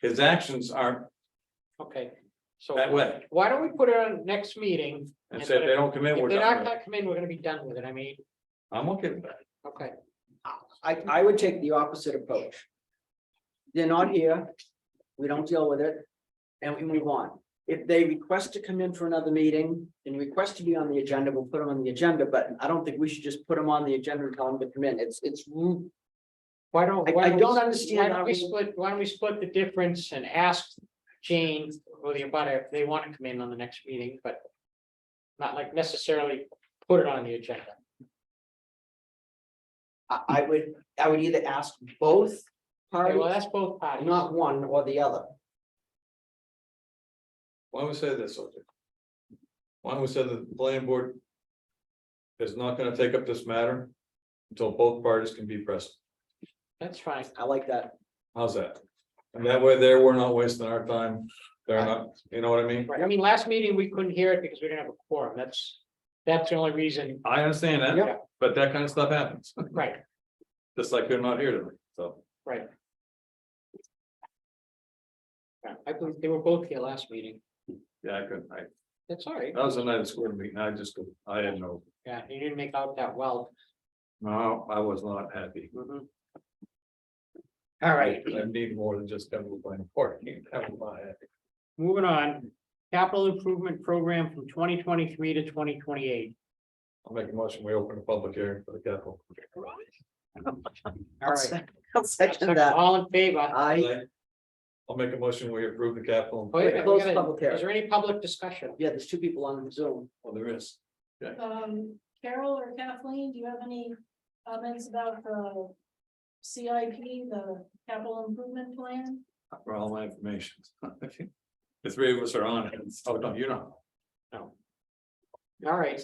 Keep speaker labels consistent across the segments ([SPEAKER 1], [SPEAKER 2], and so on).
[SPEAKER 1] His actions aren't
[SPEAKER 2] Okay, so
[SPEAKER 1] that way.
[SPEAKER 2] why don't we put it on next meeting?
[SPEAKER 1] And so if they don't come in,
[SPEAKER 2] If
[SPEAKER 1] we're
[SPEAKER 2] they're not
[SPEAKER 1] done.
[SPEAKER 2] gonna come in, we're gonna be done with it. I mean,
[SPEAKER 1] I'm okay with that.
[SPEAKER 2] okay,
[SPEAKER 3] I, I would take the opposite approach. They're not here, we don't deal with it, and we move on. If they request to come in for another meeting and request to be on the agenda, we'll put them on the agenda, but I don't think we should just put them on the agenda and tell them to come in, it's, it's rude.
[SPEAKER 2] why don't?
[SPEAKER 3] I-
[SPEAKER 2] why
[SPEAKER 3] I
[SPEAKER 2] we-
[SPEAKER 3] don't understand
[SPEAKER 2] Why don't
[SPEAKER 3] how
[SPEAKER 2] we
[SPEAKER 3] we-
[SPEAKER 2] split, why don't we split the difference and ask Jane or the abutter if they want to come in on the next meeting, but not like necessarily put it on the agenda.
[SPEAKER 3] I, I would, I would either ask both
[SPEAKER 2] Okay, well,
[SPEAKER 3] parties,
[SPEAKER 2] that's both parties.
[SPEAKER 3] not one or the other.
[SPEAKER 1] Why don't we say this? okay? Why don't we say that the planning board is not gonna take up this matter until both parties can be present?
[SPEAKER 2] That's fine.
[SPEAKER 3] I like that.
[SPEAKER 1] How's that? And that way there, we're not wasting our time. They're not, you know what I mean?
[SPEAKER 2] Right. I mean, last meeting, we couldn't hear it because we didn't have a quorum. That's, that's the only reason,
[SPEAKER 1] I understand that,
[SPEAKER 2] Yep.
[SPEAKER 1] but that kind of stuff happens,
[SPEAKER 2] right?
[SPEAKER 1] just like they're not here tonight, so.
[SPEAKER 2] I believe they were both here last meeting.
[SPEAKER 1] Yeah, I couldn't, I,
[SPEAKER 2] That's all right.
[SPEAKER 1] that was the night of school meeting, I just, couldn't- I didn't know,
[SPEAKER 2] Yeah, you didn't make out that well.
[SPEAKER 1] no, I was not happy.
[SPEAKER 3] Mm-hmm.
[SPEAKER 2] All right,
[SPEAKER 1] I need more than just come to the planning board, you can have my,
[SPEAKER 2] moving on. Capital improvement program from twenty twenty-three to twenty twenty-eight.
[SPEAKER 1] I'll make a motion, we open a public hearing for the capital.
[SPEAKER 2] All
[SPEAKER 3] I'll
[SPEAKER 2] right.
[SPEAKER 3] sec- I'll second that. Uh,
[SPEAKER 2] All in favor?
[SPEAKER 3] I,
[SPEAKER 1] I'll make a motion, we approve the capital.
[SPEAKER 2] Oh, yeah,
[SPEAKER 3] Close
[SPEAKER 2] we gotta-
[SPEAKER 3] public hearing.
[SPEAKER 2] Is there any public discussion?
[SPEAKER 3] yeah, there's two people on Zoom.
[SPEAKER 1] Well, there is.
[SPEAKER 4] Um, Carol or Kathleen, do you have any comments about the CIP, the capital improvement plan?
[SPEAKER 1] For all my information. The three of us are on it, oh, no, you're not,
[SPEAKER 2] All right,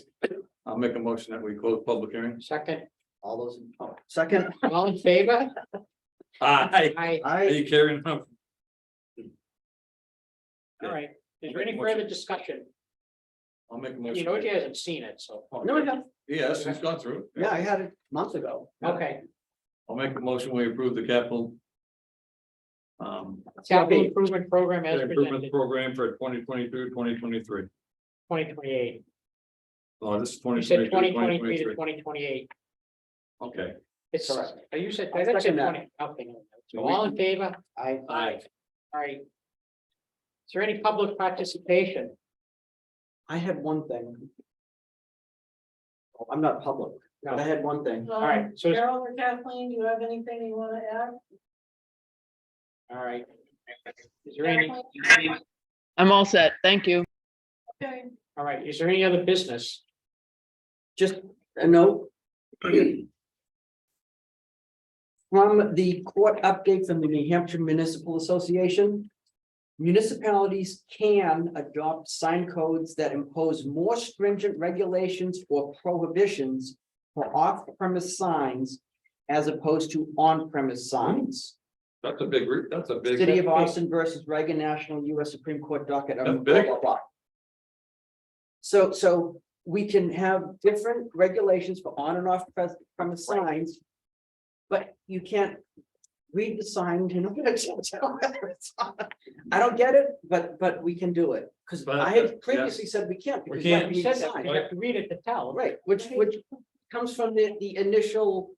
[SPEAKER 1] I'll make a motion that we close public hearing.
[SPEAKER 2] second,
[SPEAKER 3] All those, in- oh, second,
[SPEAKER 2] all in favor?
[SPEAKER 1] Aye.
[SPEAKER 2] Aye.
[SPEAKER 1] Are
[SPEAKER 3] I,
[SPEAKER 1] you carrying on?
[SPEAKER 2] all right. Is there any further discussion?
[SPEAKER 1] I'll make a
[SPEAKER 2] You
[SPEAKER 1] motion.
[SPEAKER 2] know, you hasn't seen it, so,
[SPEAKER 3] no, I have,
[SPEAKER 1] Yes, it's gone through.
[SPEAKER 3] yeah, I had it months ago.
[SPEAKER 2] okay.
[SPEAKER 1] I'll make a motion, we approve the capital. Um,
[SPEAKER 2] Capital improvement program as
[SPEAKER 1] improvement
[SPEAKER 2] presented,
[SPEAKER 1] program for 2022, 2023.
[SPEAKER 2] twenty twenty-eight.
[SPEAKER 1] Oh, this is
[SPEAKER 2] You
[SPEAKER 1] 2022,
[SPEAKER 2] said twenty twenty-three
[SPEAKER 1] 2023.
[SPEAKER 2] to twenty twenty-eight.
[SPEAKER 1] Okay,
[SPEAKER 2] It's,
[SPEAKER 3] Correct.
[SPEAKER 2] oh, you said,
[SPEAKER 3] I
[SPEAKER 2] I said
[SPEAKER 3] second that.
[SPEAKER 2] twenty, okay. So all in favor?
[SPEAKER 3] I,
[SPEAKER 2] Aye. All right. Is there any public participation?
[SPEAKER 3] I had one thing. Oh, I'm not public, but I had one thing.
[SPEAKER 2] All right,
[SPEAKER 4] Um,
[SPEAKER 2] so,
[SPEAKER 4] Carol or Kathleen, do you have anything you wanna add?
[SPEAKER 2] all right. Is there any,
[SPEAKER 4] Kathleen?
[SPEAKER 5] I'm all set. Thank you.
[SPEAKER 4] Okay,
[SPEAKER 2] all right, is there any other business?
[SPEAKER 3] Just a note. From the court update from the New Hampshire Municipal Association. Municipalities can adopt sign codes that impose more stringent regulations or prohibitions for off-premise signs as opposed to on-premise signs.
[SPEAKER 1] that's a big, re- that's a big.
[SPEAKER 3] City of Austin versus Reagan National US Supreme Court docket.
[SPEAKER 1] That's
[SPEAKER 3] um, blah,
[SPEAKER 1] big.
[SPEAKER 3] blah, blah. So, so we can have different regulations for on and off pres- premise signs. But you can't read the sign to know. whether it's on. I don't get it, but, but we can do it, because
[SPEAKER 1] But-
[SPEAKER 3] I
[SPEAKER 1] yeah.
[SPEAKER 3] had previously said we can't.
[SPEAKER 1] We
[SPEAKER 3] because that
[SPEAKER 1] can't.
[SPEAKER 2] You said
[SPEAKER 3] reads the
[SPEAKER 2] that, you
[SPEAKER 3] sign.
[SPEAKER 2] have to read it to tell,
[SPEAKER 3] Right, which, which comes from the, the initial,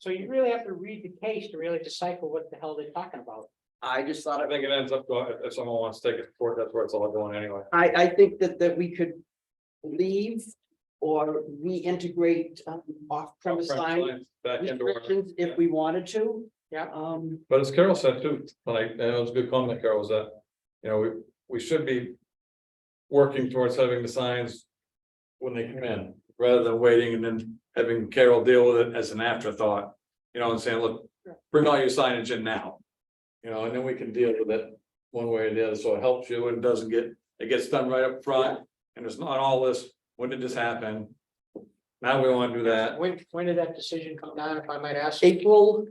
[SPEAKER 2] so you really have to read the case to really decipher what the hell they're talking about.
[SPEAKER 3] I just thought
[SPEAKER 1] I
[SPEAKER 3] of it.
[SPEAKER 1] think it ends up, to- if- if someone wants to take it to court, that's where it's all going anyway.
[SPEAKER 3] I, I think that, that we could leave or reintegrate um, off-premise sign
[SPEAKER 1] Back into our-
[SPEAKER 3] restrictions if we wanted to.
[SPEAKER 2] Yeah.
[SPEAKER 3] Um,
[SPEAKER 1] But as Carol said too, like, and it was a good comment, Carol, was that, you know, we, we should be. Working towards having the signs. When they come in, rather than waiting and then having Carol deal with it as an afterthought, you know, and saying, look, bring all your signage in now. You know, and then we can deal with it one way or the other, so it helps you and doesn't get, it gets done right up front, and it's not all this, when did this happen? Now we wanna do that,
[SPEAKER 2] When, when did that decision come down, if I might ask?
[SPEAKER 3] April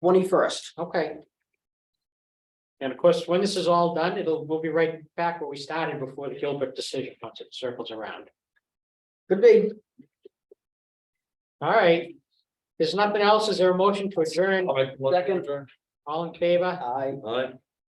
[SPEAKER 3] twenty-first.
[SPEAKER 2] Okay. And of course, when this is all done, it'll, we'll be right back where we started before the Gilbert decision, once it circles around.
[SPEAKER 3] Could be.
[SPEAKER 2] All right. There's nothing else. Is there a motion to adjourn?
[SPEAKER 1] I'll make one
[SPEAKER 3] Second.
[SPEAKER 1] return.
[SPEAKER 2] All in favor?
[SPEAKER 3] I,
[SPEAKER 1] All right,